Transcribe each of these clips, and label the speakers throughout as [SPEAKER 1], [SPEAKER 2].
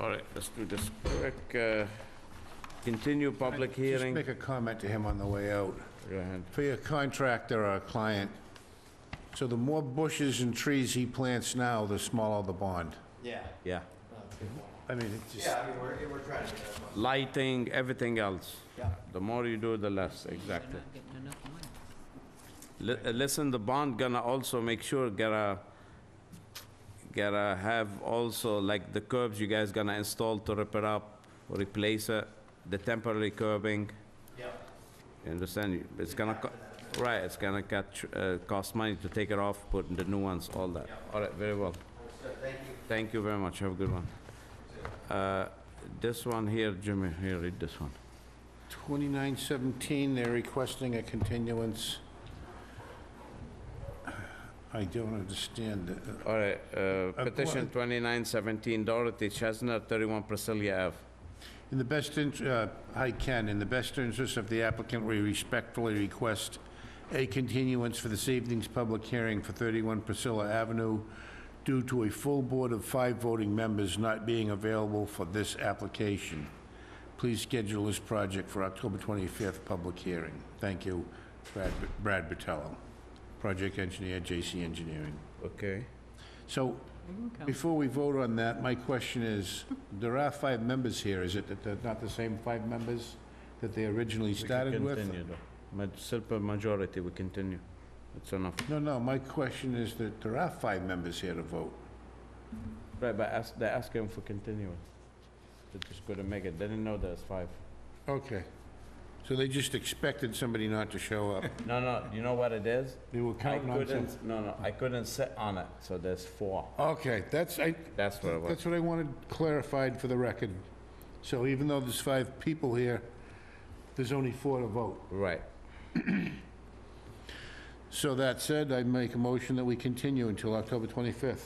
[SPEAKER 1] All right, let's do this quick. uh, Continue public
[SPEAKER 2] Just
[SPEAKER 1] hearing.
[SPEAKER 2] make a comment to him on the way out.
[SPEAKER 1] Go ahead.
[SPEAKER 2] For your contractor or client, so the more bushes and trees he plants now, the smaller the bond.
[SPEAKER 3] Yeah.
[SPEAKER 1] Yeah.
[SPEAKER 2] I mean, it just,
[SPEAKER 3] Yeah, I mean, we're, we're trying to get that one.
[SPEAKER 1] Lighting, everything else.
[SPEAKER 3] Yeah.
[SPEAKER 1] The more you do, the less, exactly.
[SPEAKER 4] Not getting enough money.
[SPEAKER 1] Li- uh, Listen, the bond gonna also make sure, gonna, gonna have also, like, the curbs you guys gonna install to repair up, replace it, the temporary curbing,
[SPEAKER 3] Yeah.
[SPEAKER 1] you understand? It's gonna, co- right, it's gonna catch, uh, cost money to take it off, put the new ones, all that. All right, very well.
[SPEAKER 3] Thank you.
[SPEAKER 1] Thank you very much, have a good one. Uh, This one here, Jimmy, here, read this one.
[SPEAKER 2] 2917, they're requesting a continuance. I don't understand. it.
[SPEAKER 1] All right, uh,
[SPEAKER 2] qu-
[SPEAKER 1] petition 2917 Dorothy Chestnut, 31 Priscilla Ave.
[SPEAKER 2] In the best, int- uh, hi Ken, in the best interest of the applicant, we respectfully request a continuance for this evening's public hearing for 31 Priscilla Avenue due to a full board of five voting members not being available for this application. Please schedule this project for October 25th public hearing. Thank you, Brad Brad Botello, project engineer, J.C. Engineering.
[SPEAKER 1] Okay.
[SPEAKER 2] So, before we vote on that, my question is, there are five members here, is it that they're not the same five members that they originally started with?
[SPEAKER 1] Simple majority, we continue. It's enough.
[SPEAKER 2] No, no, my question is that there are five members here to vote.
[SPEAKER 1] Right, but ask, they're asking for continuance. They just couldn't make it, they didn't know there's five.
[SPEAKER 2] Okay. So they just expected somebody not to show up.
[SPEAKER 1] No, no, you know what it is?
[SPEAKER 2] They were
[SPEAKER 1] I
[SPEAKER 2] counting on some...
[SPEAKER 1] couldn't, no, no, I couldn't sit on it, so there's four.
[SPEAKER 2] Okay, that's, I,
[SPEAKER 1] That's what it was.
[SPEAKER 2] that's what I wanted clarified for the record. So even though there's five people here, there's only four to vote.
[SPEAKER 1] Right.
[SPEAKER 2] So that said, I make a motion that we continue until October 25th.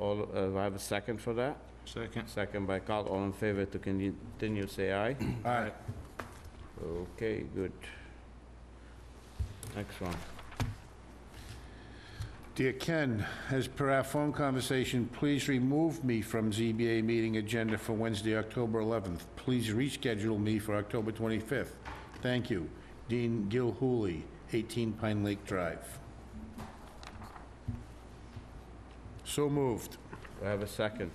[SPEAKER 1] All, uh, do I have a second for that? Second. Second by Carl, all in favor to continue, say aye.
[SPEAKER 2] All right.
[SPEAKER 1] Okay, good. Next one.
[SPEAKER 2] Dear Ken, as per our phone conversation, please remove me from ZBA meeting agenda for Wednesday, October 11th. Please reschedule me for October 25th. Thank you. Dean Gilhooly, 18 Pine Lake Drive. So moved.
[SPEAKER 1] Do I have a second?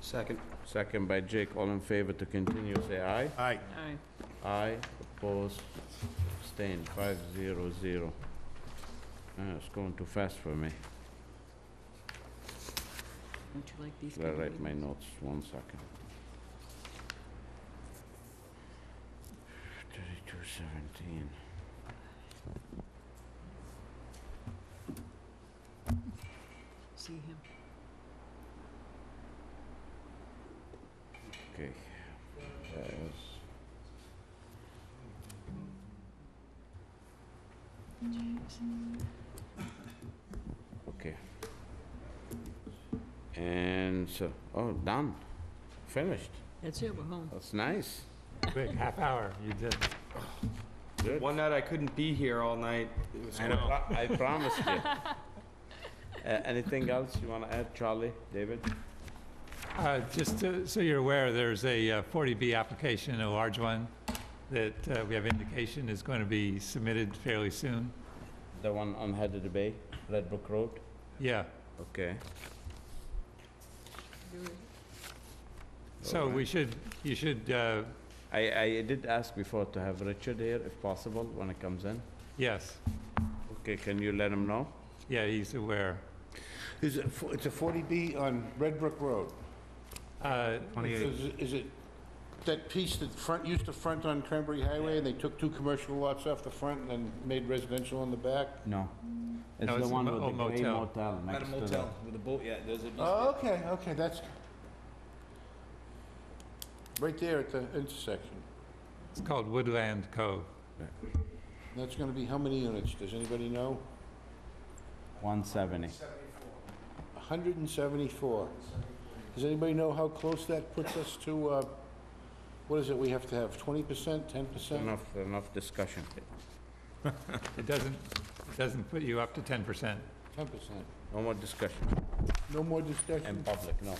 [SPEAKER 3] Second.
[SPEAKER 1] Second by Jake, all in favor to continue, say aye.
[SPEAKER 2] Aye.
[SPEAKER 4] Aye.
[SPEAKER 1] Aye, opposed, abstained, five zero zero. Ah, It's going too fast for me.
[SPEAKER 4] Don't you like these?
[SPEAKER 1] I'll
[SPEAKER 4] people
[SPEAKER 1] write
[SPEAKER 4] with-
[SPEAKER 1] my notes, one second. Thirty-two seventeen.
[SPEAKER 4] See him?
[SPEAKER 1] Okay. That is- Okay. And so, oh, done, finished.
[SPEAKER 4] That's it, we're home.
[SPEAKER 1] That's nice.
[SPEAKER 5] Quick, half hour, you did.
[SPEAKER 1] Good.
[SPEAKER 3] One night I couldn't be here all night. It was
[SPEAKER 5] I know.
[SPEAKER 1] I promised you. Uh, Anything else you want to add, Charlie, David?
[SPEAKER 5] Uh, Just to- so you're aware, there's a uh, 40B application, a large one, that uh, we have indication is going to be submitted fairly soon.
[SPEAKER 1] The one on Headed Bay, Red Brook Road?
[SPEAKER 5] Yeah,
[SPEAKER 1] Okay.
[SPEAKER 5] so we should, you should, uh,
[SPEAKER 1] I, I did ask before to have Richard here if possible when it comes in.
[SPEAKER 5] yes,
[SPEAKER 1] Okay, can you let him know?
[SPEAKER 5] yeah, he's aware.
[SPEAKER 2] Is it, fo- it's a 40B on Red Brook Road?
[SPEAKER 5] Uh,
[SPEAKER 2] Is it- is it that piece that front, used to front on Cranberry Highway, and they took two commercial lots off the front and then made residential on the back?
[SPEAKER 1] No. It's
[SPEAKER 5] No,
[SPEAKER 1] the
[SPEAKER 5] it's a
[SPEAKER 1] one
[SPEAKER 5] mo-
[SPEAKER 1] with the
[SPEAKER 5] old
[SPEAKER 1] gray
[SPEAKER 5] motel.
[SPEAKER 1] motel
[SPEAKER 3] At a
[SPEAKER 1] next to
[SPEAKER 3] motel
[SPEAKER 1] that.
[SPEAKER 3] with a boat, yeah, there's a.
[SPEAKER 2] Oh, okay, okay, that's, right there at the intersection.
[SPEAKER 5] It's called Woodland Cove.
[SPEAKER 2] That's gonna be how many units, does anybody know?
[SPEAKER 1] 170.
[SPEAKER 2] hundred and seventy-four. Does anybody know how close that puts us to, uh, what is it, we have to have twenty percent, ten percent?
[SPEAKER 1] Enough, enough discussion.
[SPEAKER 5] It doesn't, it doesn't put you up to 10%.
[SPEAKER 2] Ten percent.
[SPEAKER 1] No more discussion
[SPEAKER 2] No more
[SPEAKER 1] in
[SPEAKER 2] discussion?
[SPEAKER 1] public, no.